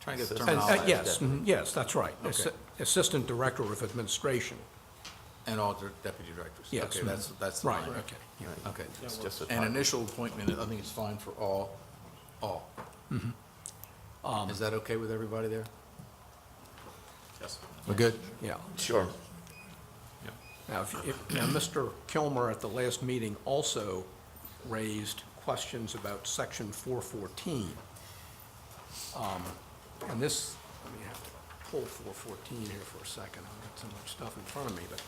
Trying to get the Uh, terminology. uh, Yes, mhm, yes, that's right. Assi- Okay. Assistant Director of Administration. And all dir- deputy directors? Yes. Okay, that's, that's the Right, line. okay, yeah. Okay. It's just a An typo. initial appointment, I think it's fine for all, all. Mm-hmm. Um, Is that okay with everybody there? Yes. We're good? Yeah. Sure. Now, if- if, now, Mr. Kilmer at the last meeting also raised questions about section four fourteen. Um, And this, let me have to pull four fourteen here for a second, I've got so much stuff in front of me, but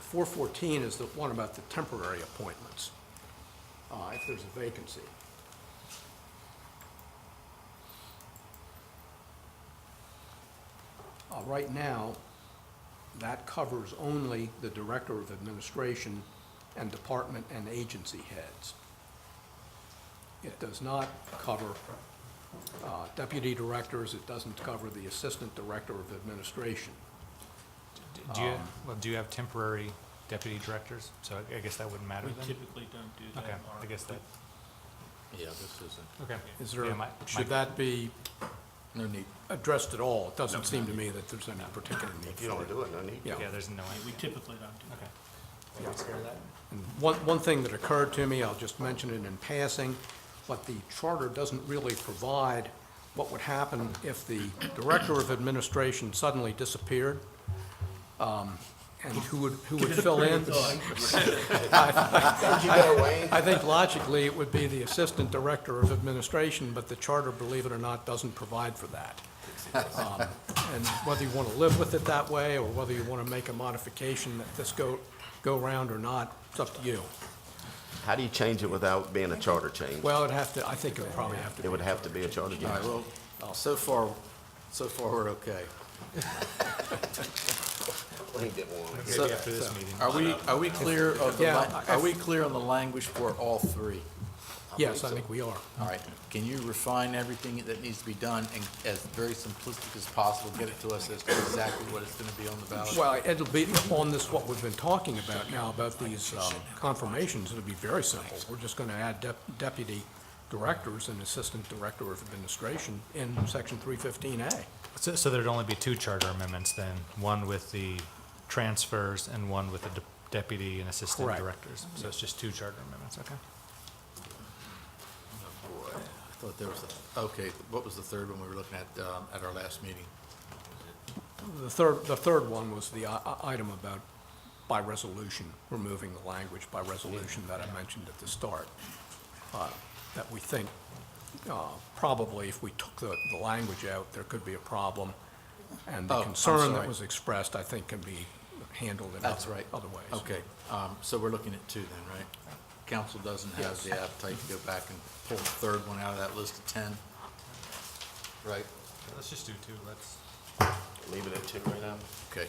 four fourteen is the one about the temporary appointments, uh, if there's a vacancy. Uh, right now, that covers only the Director of Administration and Department and Agency heads. It does not cover uh, Deputy Directors, it doesn't cover the Assistant Director of Administration. D- Do you, well, do you have temporary deputy directors? So I- I guess that wouldn't matter We then? typically don't do that. Okay, I Mark. guess that, Yeah, this isn't, okay. Is Yeah, there, my- should my- that be no need. addressed at all? It doesn't seem to me that there's any particular need If you for don't it. do it, no need. Yeah. Yeah, there's no, Yeah, We typically don't do that. okay. One, one thing that occurred to me, I'll just mention it in passing, but the charter doesn't really provide what would happen if the director of administration suddenly disappeared, um, and who would, who would fill in? Did you go, Wayne? I think logically, it would be the assistant director of administration, but the charter, believe it or not, doesn't provide for that. Um, And whether you want to live with it that way, or whether you want to make a modification that this go, go round or not, it's up to you. How do you change it without being a charter change? Well, it'd have to, I think it would probably have to It be. would have to be a charter All right, change. well, oh, so far, so far, we're okay. Wayne didn't want it. Maybe after this meeting. Are we, are we clear of the, Yeah, li- I- are we clear on the language for all three? Yes, I think we are. All right, can you refine everything that needs to be done and as very simplistic as possible, get it to us as to exactly what it's gonna be on the ballot? Well, it'll be on this, what we've been talking about now, about these um, confirmations, it'll be very simple. We're just going to add dep- deputy directors and assistant director of administration in section 315A. So, so there'd only be two charter amendments then, one with the transfers and one with the de- deputy and assistant Correct. directors? So it's just two charter amendments, okay. Boy, I thought there was, a- okay, what was the third one we were looking at, um, at our last meeting? The third, the third one was the i- i- item about by resolution, removing the language by resolution that I mentioned at the start, uh, that we think uh, probably if we took the, the language out, there could be a problem. And Oh, the I'm concern sorry. that was expressed, I think, can be handled in That's other- right. other ways. Okay, um, so we're looking at two then, right? Council doesn't have the appetite to go back and pull the third one out of that list of ten, right? Let's just do two, let's, Leave it at two right now? Okay,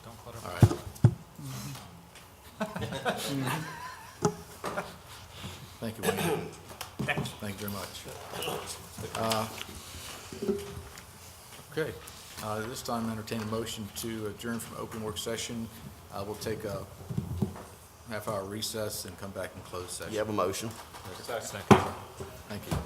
don't clutter. all right. Thank you, Wayne. Thank you very much. Uh, Okay, uh, this time I entertain a motion to adjourn from open work session. Uh, We'll take a half-hour recess and come back in closed You session. have a motion? Second. Thank you.